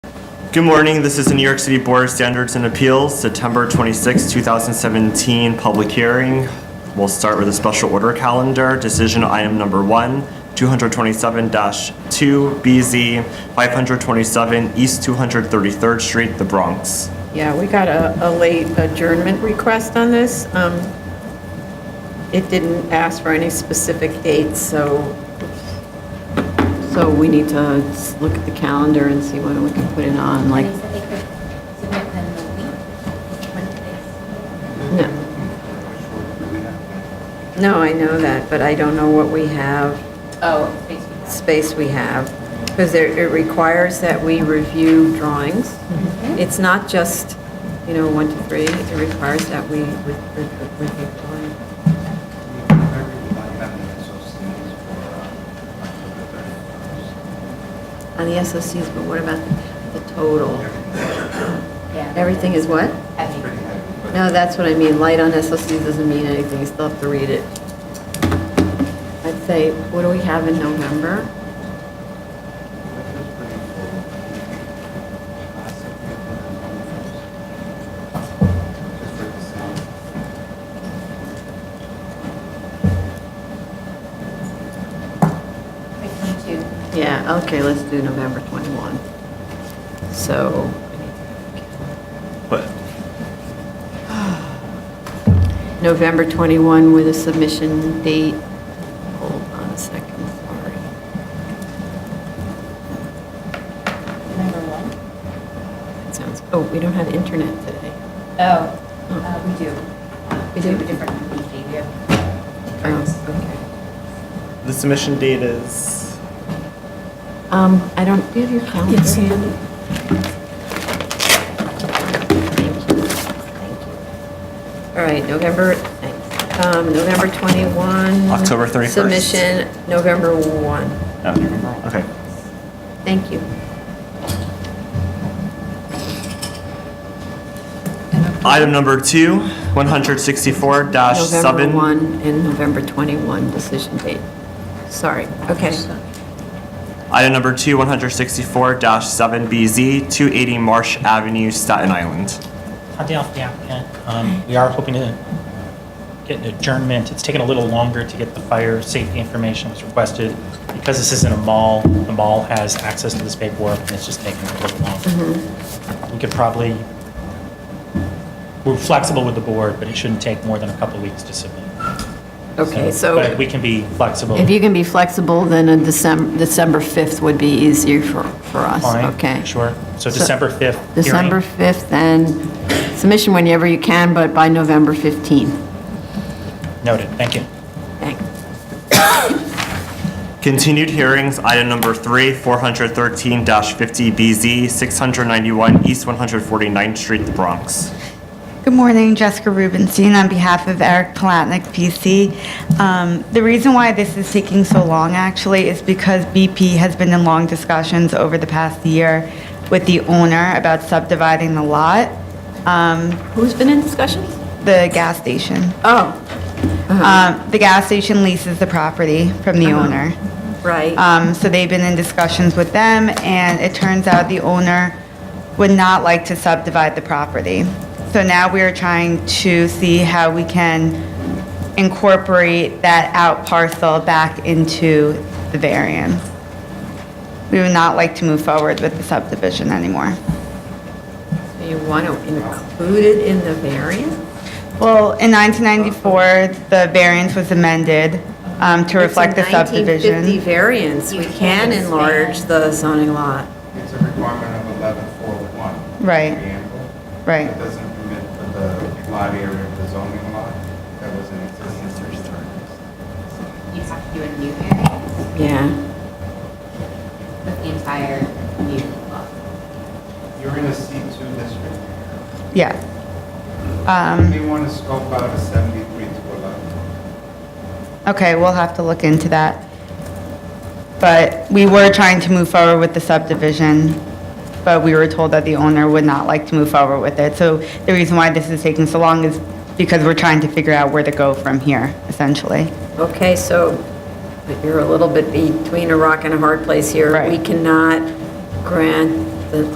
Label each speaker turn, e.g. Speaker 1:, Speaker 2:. Speaker 1: Good morning, this is the New York City Board of Standards and Appeals, September 26, 2017, public hearing. We'll start with a special order calendar, decision item number one, 227-2BZ, 527 East 233rd Street, the Bronx.
Speaker 2: Yeah, we got a, a late adjournment request on this. Um, It didn't ask for any specific dates, so, so we need to s- look at the calendar and see when we can put it on, like,
Speaker 3: They said they could submit them the week, Wednesdays.
Speaker 2: no. No, I know that, but I don't know what we have,
Speaker 3: Oh, it's basically.
Speaker 2: space we have, because there, it requires that we review drawings. It's not just, you know, one to three, it requires that we re- re- review drawings. On the SOCs, but what about the total?
Speaker 3: Yeah.
Speaker 2: Everything is what?
Speaker 3: Heavy.
Speaker 2: No, that's what I mean, light on SOCs doesn't mean anything, you still have to read it. I'd say, what do we have in November?
Speaker 3: Like 22.
Speaker 2: Yeah, okay, let's do November 21. So,
Speaker 1: But
Speaker 2: November 21 with a submission date, hold on a second, sorry.
Speaker 3: Number one?
Speaker 2: That sounds, oh, we don't have internet today.
Speaker 3: Oh, uh, we do.
Speaker 2: We
Speaker 3: We do
Speaker 2: do?
Speaker 3: a different company, we have.
Speaker 2: Oh,
Speaker 1: the submission date is,
Speaker 2: okay. Um, I don't, do you have your calendar?
Speaker 4: It's Andy.
Speaker 2: All right, November, um, November 21.
Speaker 1: October 31st.
Speaker 2: Submission, November 1.
Speaker 1: oh, you remember? okay.
Speaker 2: Thank you.
Speaker 1: Item number two, 164-7.
Speaker 2: November 1 and November 21 decision date. Sorry, okay.
Speaker 1: Item number two, 164-7BZ, 280 Marsh Avenue, Staten Island.
Speaker 5: Hot off the applicant. Um, We are hoping to get an adjournment. It's taken a little longer to get the fire safety information that was requested. Because this isn't a mall, the mall has access to this paperwork, and it's just taking a little longer.
Speaker 2: Mm-hmm.
Speaker 5: We could probably, we're flexible with the board, but it shouldn't take more than a couple weeks to submit.
Speaker 2: Okay,
Speaker 5: But
Speaker 2: so
Speaker 5: we can be flexible.
Speaker 2: if you can be flexible, then a December, December 5th would be easier for, for us,
Speaker 5: Fine,
Speaker 2: okay?
Speaker 5: Sure. So
Speaker 2: So-
Speaker 5: December 5th. hearing.
Speaker 2: December 5th and submission whenever you can, but by November 15.
Speaker 5: Noted. Thank you.
Speaker 2: Thanks.
Speaker 1: Continued hearings, item number three, 413-50BZ, 691 East 149th Street, the Bronx.
Speaker 6: Good morning, Jessica Rubenstein on behalf of Eric Palatnik, PC. Um, The reason why this is taking so long, actually, is because BP has been in long discussions over the past year with the owner about subdividing the lot, um,
Speaker 2: Who's been in discussions?
Speaker 6: the gas station.
Speaker 2: Oh,
Speaker 6: Um, The gas station leases the property from the owner.
Speaker 2: right.
Speaker 6: Um, So they've been in discussions with them, and it turns out the owner would not like to subdivide the property. So now we are trying to see how we can incorporate that out parcel back into the variance. We would not like to move forward with the subdivision anymore. uh,
Speaker 2: So You want to include it in the variance?
Speaker 6: Well, in 1994, the variance was amended um, to reflect the
Speaker 2: It's a 1950
Speaker 6: subdivision.
Speaker 2: variance. We
Speaker 3: You
Speaker 2: can
Speaker 3: can't
Speaker 2: enlarge
Speaker 3: expand.
Speaker 2: the zoning lot.
Speaker 7: It's a requirement of 1141.
Speaker 6: Right.
Speaker 7: Preamble.
Speaker 6: Right.
Speaker 7: It doesn't permit for the lot area of the zoning lot that was in existence for
Speaker 3: You'd have to do a new variance
Speaker 2: Yeah.
Speaker 3: with the entire new lot.
Speaker 7: You're in a C2 district.
Speaker 6: Yeah. Um,
Speaker 7: They want to scope out a 73 to 11.
Speaker 6: Okay, we'll have to look into that. But we were trying to move forward with the subdivision, but we were told that the owner would not like to move forward with it. So the reason why this is taking so long is because we're trying to figure out where to go from here, essentially.
Speaker 2: Okay, so but you're a little bit between a rock and a hard place here.
Speaker 6: Right.
Speaker 2: We cannot grant